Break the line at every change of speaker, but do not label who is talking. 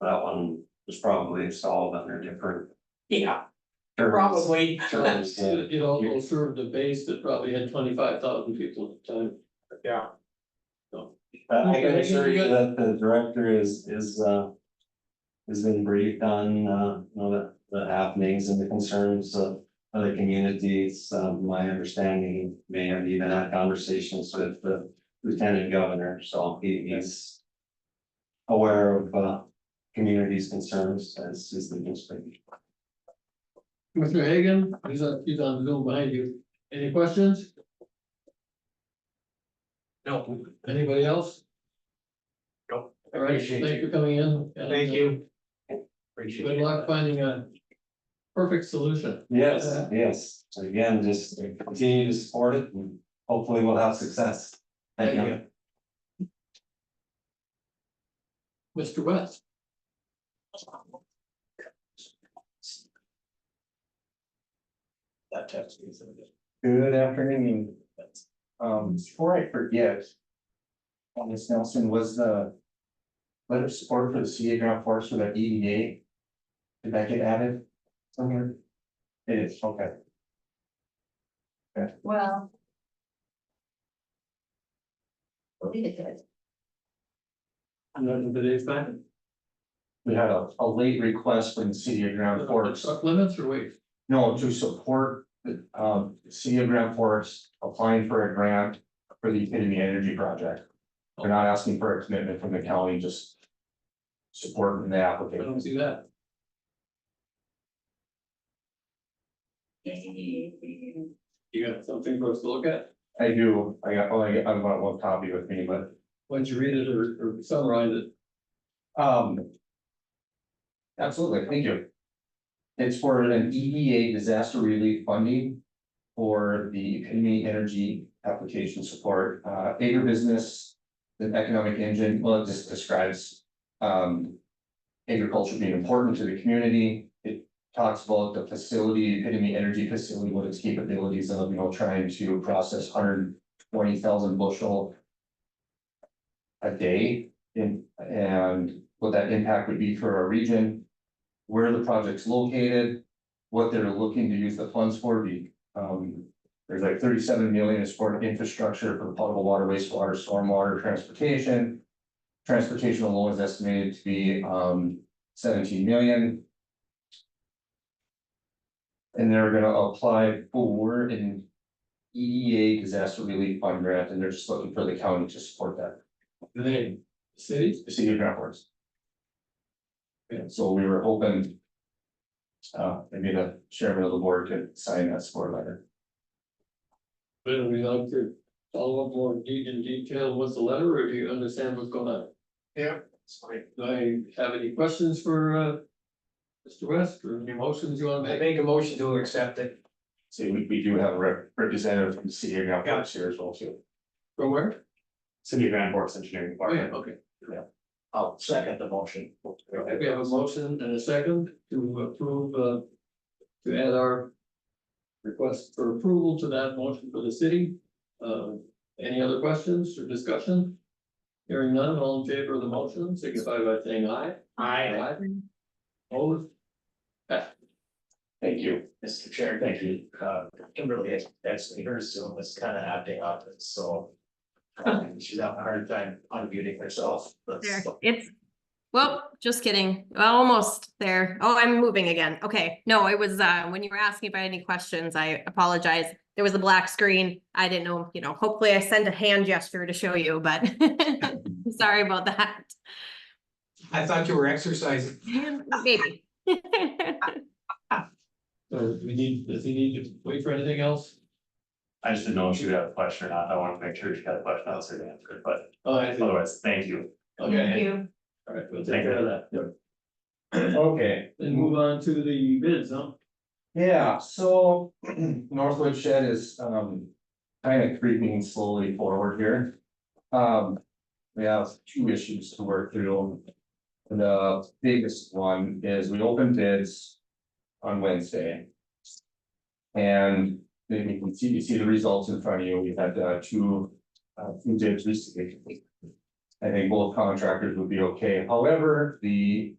That one was probably installed under different
Yeah,
terms.
probably.
Terms, yeah.
It also served a base that probably had twenty-five thousand people at the time.
Yeah.
But I can assure you that the director is, is, uh. Has been briefed on, uh, you know, the, the happenings and the concerns of other communities, um, my understanding. May have even had conversations with the lieutenant governor, so he, he's. Aware of, uh, communities' concerns as is the newspaper.
Mr. Hagan, he's on, he's on Zoom behind you. Any questions?
No.
Anybody else?
Nope.
All right,
Appreciate
thanks for coming in. and,
Thank
uh,
you.
Good
Appreciate
luck finding a perfect solution.
Yes, yes, So again, just continue to support it and hopefully we'll have success. Thank
Thank
you.
Mr. West,
That text is.
Good afternoon. Um, before I forget. On this Nelson was the. Letter of support for the CA ground force for that EDA. Did that get added somewhere? It is, okay.
Well. I believe it did.
nothing today's time.
We had a, a late request from the city of Grand Forks,
uh, Truck limits or wait?
no, to support the, um, city of Grand Forks applying for a grant. For the Epitome Energy Project. They're not asking for a commitment from the county, just. Supporting the
I
application.
don't see that. You got something for us to look at?
I do, I got, oh, I got, I've got one copy with me, but,
Why don't you read it or or summarize it?
um. Absolutely, thank you. It's for an EDA disaster relief funding for the community energy application support, uh, agribusiness. The economic engine, well, it just describes, um. Agriculture being important to the community, it talks about the facility, epitome energy facility, what its capabilities of, you know, trying to process hundred twenty thousand bushel. a day in, and what that impact would be for our region. Where the project's located, what they're looking to use the funds for, be, um, there's like thirty-seven million is for infrastructure for potable water, wastewater, stormwater, transportation. Transportation alone is estimated to be, um, seventeen million. And they're gonna apply for an EDA disaster relief fund grant, and they're just looking for the county to support that
The name, city?
the city of Grand Forks.
Yeah.
so we were hoping. Uh, maybe the chairman of the board could sign that support letter.
But we like to follow up more de- in detail with the letter, or do you understand what's going on? Do I have any questions for uh Mr. West or any motions you wanna
I
make?
make a motion to accept it.
See, we, we do have a rep- representative from the city of Grand Forks here as well, too.
From where?
City of Grand Forks Engineering
Oh, yeah,
Department.
okay.
I'll second the motion.
Okay, we have a motion and a second to approve uh to add our request for approval to that motion for the city. Uh, any other questions or discussion? Hearing none, all in favor of the motion, signify by saying aye.
Aye,
Opposed?
Thank you.
Mr. Chair, thank you. Uh, Kimberly, actually, her Zoom was kind of acting up, and so. um, She's having a hard time unmuting herself. but-
There, it's, well, just kidding, almost there. Oh, I'm moving again. Okay, no, it was, uh, when you were asking if I had any questions, I apologize. There was a black screen. I didn't know, you know, hopefully I sent a hand gesture to show you, but sorry about that.
I thought you were exercising.
Maybe.
So we need, does he need to wait for anything else?
I just didn't know if she would have a question or not. I wanted to make sure she had a question, I was going to answer it, but
Oh, I see.
otherwise, thank you.
Okay,
you.
all right, we'll take care of that. Yep.
Okay.
Then move on to the bids, huh?
Yeah, so Northwood Shed is um kind of creeping slowly forward here. Um, we have two issues to work through. The biggest one is we opened bids on Wednesday. And then you can see, you see the results in front of you. We had uh two uh two bids recently. I think both contractors would be okay. However, the